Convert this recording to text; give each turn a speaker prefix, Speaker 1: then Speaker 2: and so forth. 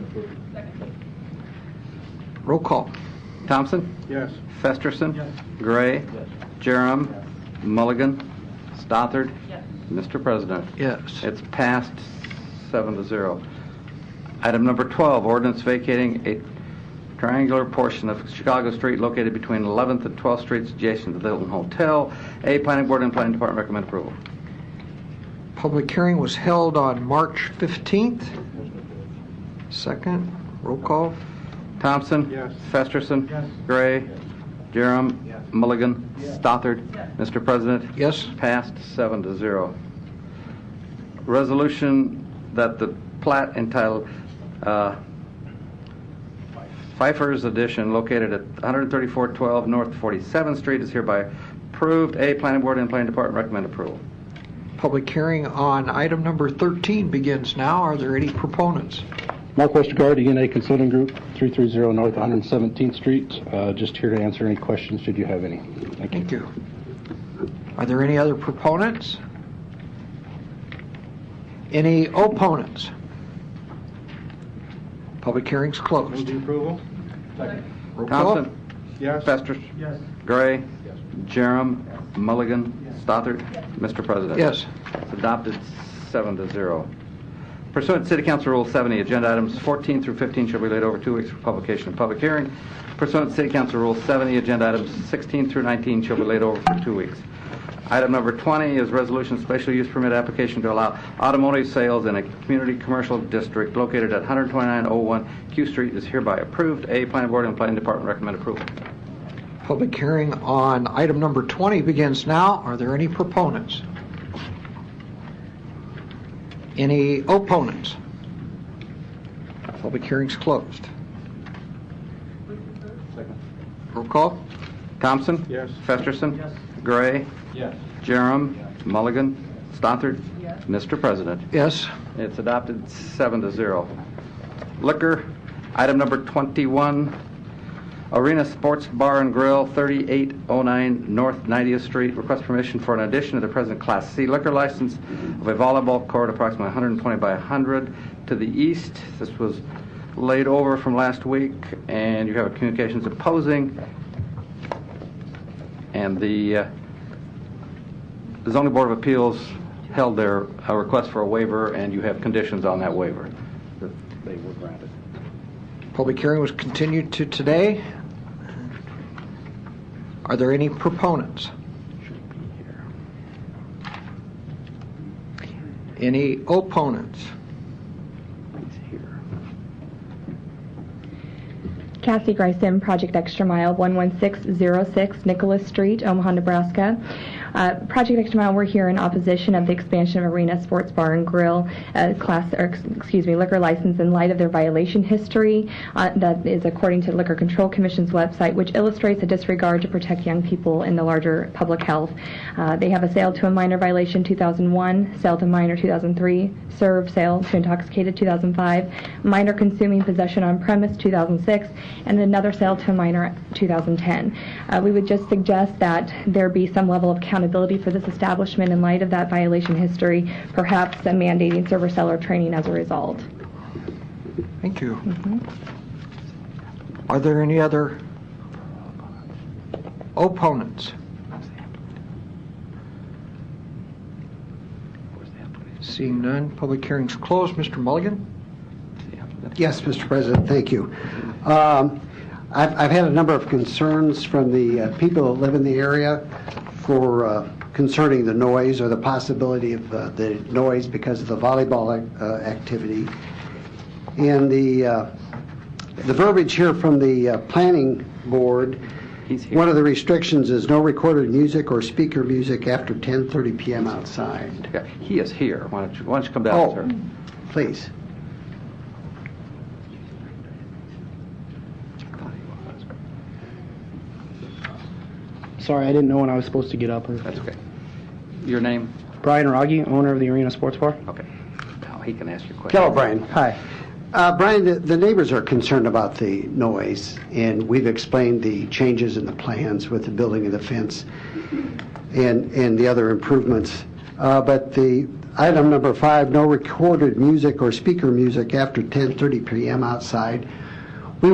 Speaker 1: approved.
Speaker 2: Roll call. Thompson?
Speaker 1: Yes.
Speaker 2: Festerson?
Speaker 1: Yes.
Speaker 2: Gray?
Speaker 1: Yes.
Speaker 2: Jerem?
Speaker 1: Yes.
Speaker 2: Mulligan? Stothard?
Speaker 3: Yes.
Speaker 2: Mr. President?
Speaker 4: Yes.
Speaker 2: It's passed seven to zero. Item number 12, ordinance vacating a triangular portion of Chicago Street located between 11th and 12th Streets adjacent to the Hilton Hotel. A Planning Board and Planning Department recommend approval.
Speaker 4: Public hearing was held on March 15th. Second, roll call.
Speaker 2: Thompson?
Speaker 1: Yes.
Speaker 2: Festerson?
Speaker 1: Yes.
Speaker 2: Gray?
Speaker 1: Yes.
Speaker 2: Jerem?
Speaker 1: Yes.
Speaker 2: Mulligan?
Speaker 1: Yes.
Speaker 2: Stothard?
Speaker 3: Yes.
Speaker 2: Mr. President?
Speaker 4: Yes.
Speaker 2: Passed seven to zero. Resolution that the plat entitled uh, Pfeiffer's Edition located at 13412 North 47th Street is hereby approved. A, Planning Board and Planning Department recommend approval.
Speaker 4: Public hearing on item number 13 begins now. Are there any proponents?
Speaker 5: Mark Westergaard, ENA E Consulting Group, 330 North 117th Street. Uh, Just here to answer any questions, should you have any. Thank
Speaker 4: Thank
Speaker 5: you.
Speaker 4: you. Are there any other proponents? Any opponents? Public hearing's
Speaker 1: Move
Speaker 4: closed.
Speaker 1: the approval? Second.
Speaker 4: Roll call.
Speaker 2: Thompson?
Speaker 1: Yes.
Speaker 2: Festerson?
Speaker 1: Yes.
Speaker 2: Gray?
Speaker 1: Yes.
Speaker 2: Jerem? Mulligan?
Speaker 1: Yes.
Speaker 2: Stothard? Mr. President?
Speaker 4: Yes.
Speaker 2: It's adopted seven to zero. Pursuant to City Council Rule 70, agenda items 14 through 15 shall be laid over two weeks for publication and public hearing. Pursuant to City Council Rule 70, agenda items 16 through 19 shall be laid over for two weeks. Item number 20 is resolution special use permit application to allow automotive sales in a community commercial district located at 12901 Q Street is hereby approved. A, Planning Board and Planning Department recommend approval.
Speaker 4: Public hearing on item number 20 begins now. Are there any proponents? Any opponents? Public hearing's closed.
Speaker 1: Second.
Speaker 4: Roll call.
Speaker 2: Thompson?
Speaker 1: Yes.
Speaker 2: Festerson?
Speaker 1: Yes.
Speaker 2: Gray?
Speaker 1: Yes.
Speaker 2: Jerem? Mulligan? Stothard?
Speaker 3: Yes.
Speaker 2: Mr. President?
Speaker 4: Yes.
Speaker 2: It's adopted seven to zero. Liquor, item number 21, Arena Sports Bar and Grill, 3809 North 90th Street. Request permission for an addition to the present Class C liquor license of a volleyball court approximately 120 by 100 to the east. This was laid over from last week, and you have a communications opposing. And the uh, the zoning board of appeals held their uh, request for a waiver, and you have conditions on that waiver that they were granted.
Speaker 4: Public hearing was continued to today. Are there any proponents? Any opponents?
Speaker 6: Kathy Gryson, Project Extra Mile, 11606 Nicholas Street, Omaha, Nebraska. Uh, Project Extra Mile, we're here in opposition of the expansion of Arena Sports Bar and Grill, uh, class, or ex- excuse me, liquor license in light of their violation history. Uh, that is according to the Liquor Control Commission's website, which illustrates a disregard to protect young people in the larger public health. Uh, they have a sale to a minor violation 2001, sale to minor 2003, serve sale to intoxicated 2005, minor consuming possession on premise 2006, and another sale to a minor 2010. Uh, we would just suggest that there be some level of accountability for this establishment in light of that violation history, perhaps uh, mandating server seller training as a result.
Speaker 4: Thank you. Are there any other opponents? Seeing none, public hearing's closed. Mr. Mulligan?
Speaker 7: Yes, Mr. President, thank you. Um, I've I've had a number of concerns from the uh, people that live in the area for uh, concerning the noise or the possibility of uh, the noise because of the volleyball ac- uh, activity. And the uh, the verbiage here from the uh, planning board,
Speaker 2: He's here.
Speaker 7: one of the restrictions is no recorded music or speaker music after 10:30 PM outside.
Speaker 2: Yeah, He is here. Why don't you, why don't you come down,
Speaker 7: Oh.
Speaker 2: sir?
Speaker 7: Please.
Speaker 5: Sorry, I didn't know when I was supposed to get up. or-
Speaker 2: That's okay. Your name?
Speaker 5: Brian Rogge, owner of the Arena Sports Bar.
Speaker 2: Okay. Now, he can ask your question.
Speaker 7: Hello, Brian. Hi. Uh, Brian, the- the neighbors are concerned about the noise, and we've explained the changes in the plans with the building of the fence and, and the other improvements. Uh, But the, Item number five, no recorded music or speaker music after 10:30 PM outside